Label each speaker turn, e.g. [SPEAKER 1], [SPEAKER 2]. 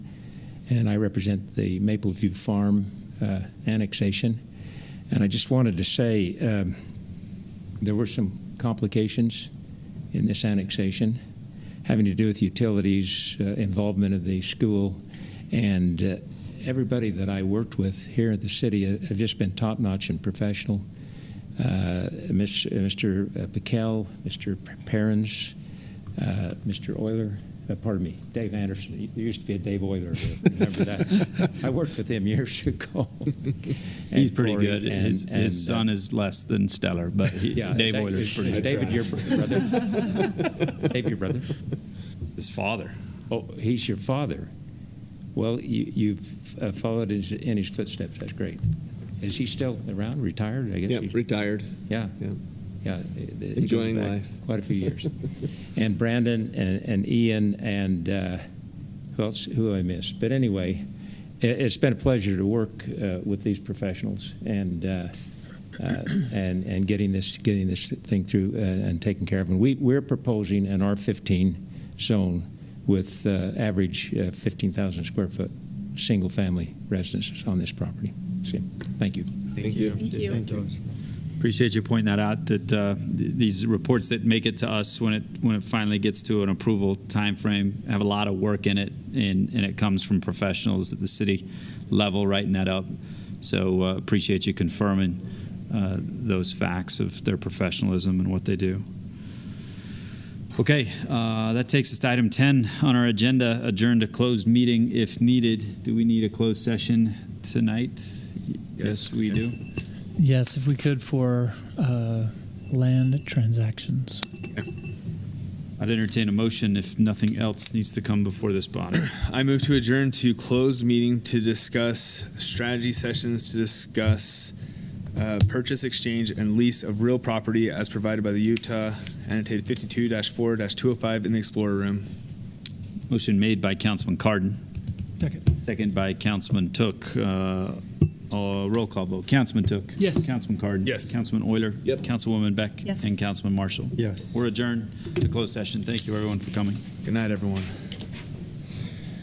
[SPEAKER 1] and I represent the Maple View Farm uh, annexation. And I just wanted to say um, there were some complications in this annexation having to do with utilities, uh, involvement of the school, and uh, everybody that I worked with here at the city uh, have just been top notch and professional. Uh, Miss, Mr. Piquel, Mr. Perrins, uh, Mr. Euler, uh, pardon me, Dave Anderson. There used to be a Dave Euler. Remember that? I worked with him years ago.
[SPEAKER 2] He's
[SPEAKER 1] And
[SPEAKER 2] pretty
[SPEAKER 1] Corey
[SPEAKER 2] good.
[SPEAKER 1] and-
[SPEAKER 2] his
[SPEAKER 1] and,
[SPEAKER 2] his
[SPEAKER 1] uh,
[SPEAKER 2] son is less than stellar, but he,
[SPEAKER 1] yeah,
[SPEAKER 2] Dave
[SPEAKER 1] exactly.
[SPEAKER 2] Euler's pretty
[SPEAKER 1] Is
[SPEAKER 2] good.
[SPEAKER 1] David, your br- brother. Dave, your brother.
[SPEAKER 2] His father.
[SPEAKER 1] Oh, he's your father. Well, you, you've uh, followed his, in his footsteps. That's great. Is he still around? Retired? I guess.
[SPEAKER 3] Yep,
[SPEAKER 1] he's-
[SPEAKER 3] retired.
[SPEAKER 1] yeah.
[SPEAKER 3] Yeah.
[SPEAKER 1] Yeah. it- it goes
[SPEAKER 3] Enjoying
[SPEAKER 1] back
[SPEAKER 3] life.
[SPEAKER 1] Quite a few years. and Brandon and, and Ian and uh, who else? Who I missed? But anyway, it, it's been a pleasure to work uh, with these professionals and. Uh, uh, and and getting this getting this thing through uh, and taken care of. And we we're proposing an R15 zone with uh, average uh, 15,000 square foot single family residences on this property. So, thank you.
[SPEAKER 3] Thank you.
[SPEAKER 4] Thank you.
[SPEAKER 2] Appreciate you pointing that out. That uh, th- these reports that make it to us when it when it finally gets to an approval time frame have a lot of work in it, and and it comes from professionals at the city level writing that up. So uh, appreciate you confirming uh, those facts of their professionalism and what they do. Okay, uh, that takes us to item 10 on our agenda, adjourn to closed meeting if needed. Do we need a closed session tonight? Yes, we do.
[SPEAKER 5] Yes, if we could for uh, land transactions.
[SPEAKER 2] I'd entertain a motion if nothing else needs to come before this body.
[SPEAKER 3] I move to adjourn to closed meeting to discuss strategy sessions to discuss uh, purchase, exchange, and lease of real property as provided by the Utah annotated 52-4-205 in the Explorer Room.
[SPEAKER 2] Motion made by Councilman Cardon,
[SPEAKER 5] Second.
[SPEAKER 2] second by Councilman Took. Uh, uh, roll call vote. Councilman Took.
[SPEAKER 5] Yes.
[SPEAKER 2] Councilman Cardon.
[SPEAKER 3] Yes.
[SPEAKER 2] Councilman Euler.
[SPEAKER 3] Yep.
[SPEAKER 2] Councilwoman Beck.
[SPEAKER 4] Yes.
[SPEAKER 2] And Councilman Marshall.
[SPEAKER 6] Yes.
[SPEAKER 2] We're adjourned to closed session. Thank you, everyone, for coming.
[SPEAKER 3] Good night, everyone.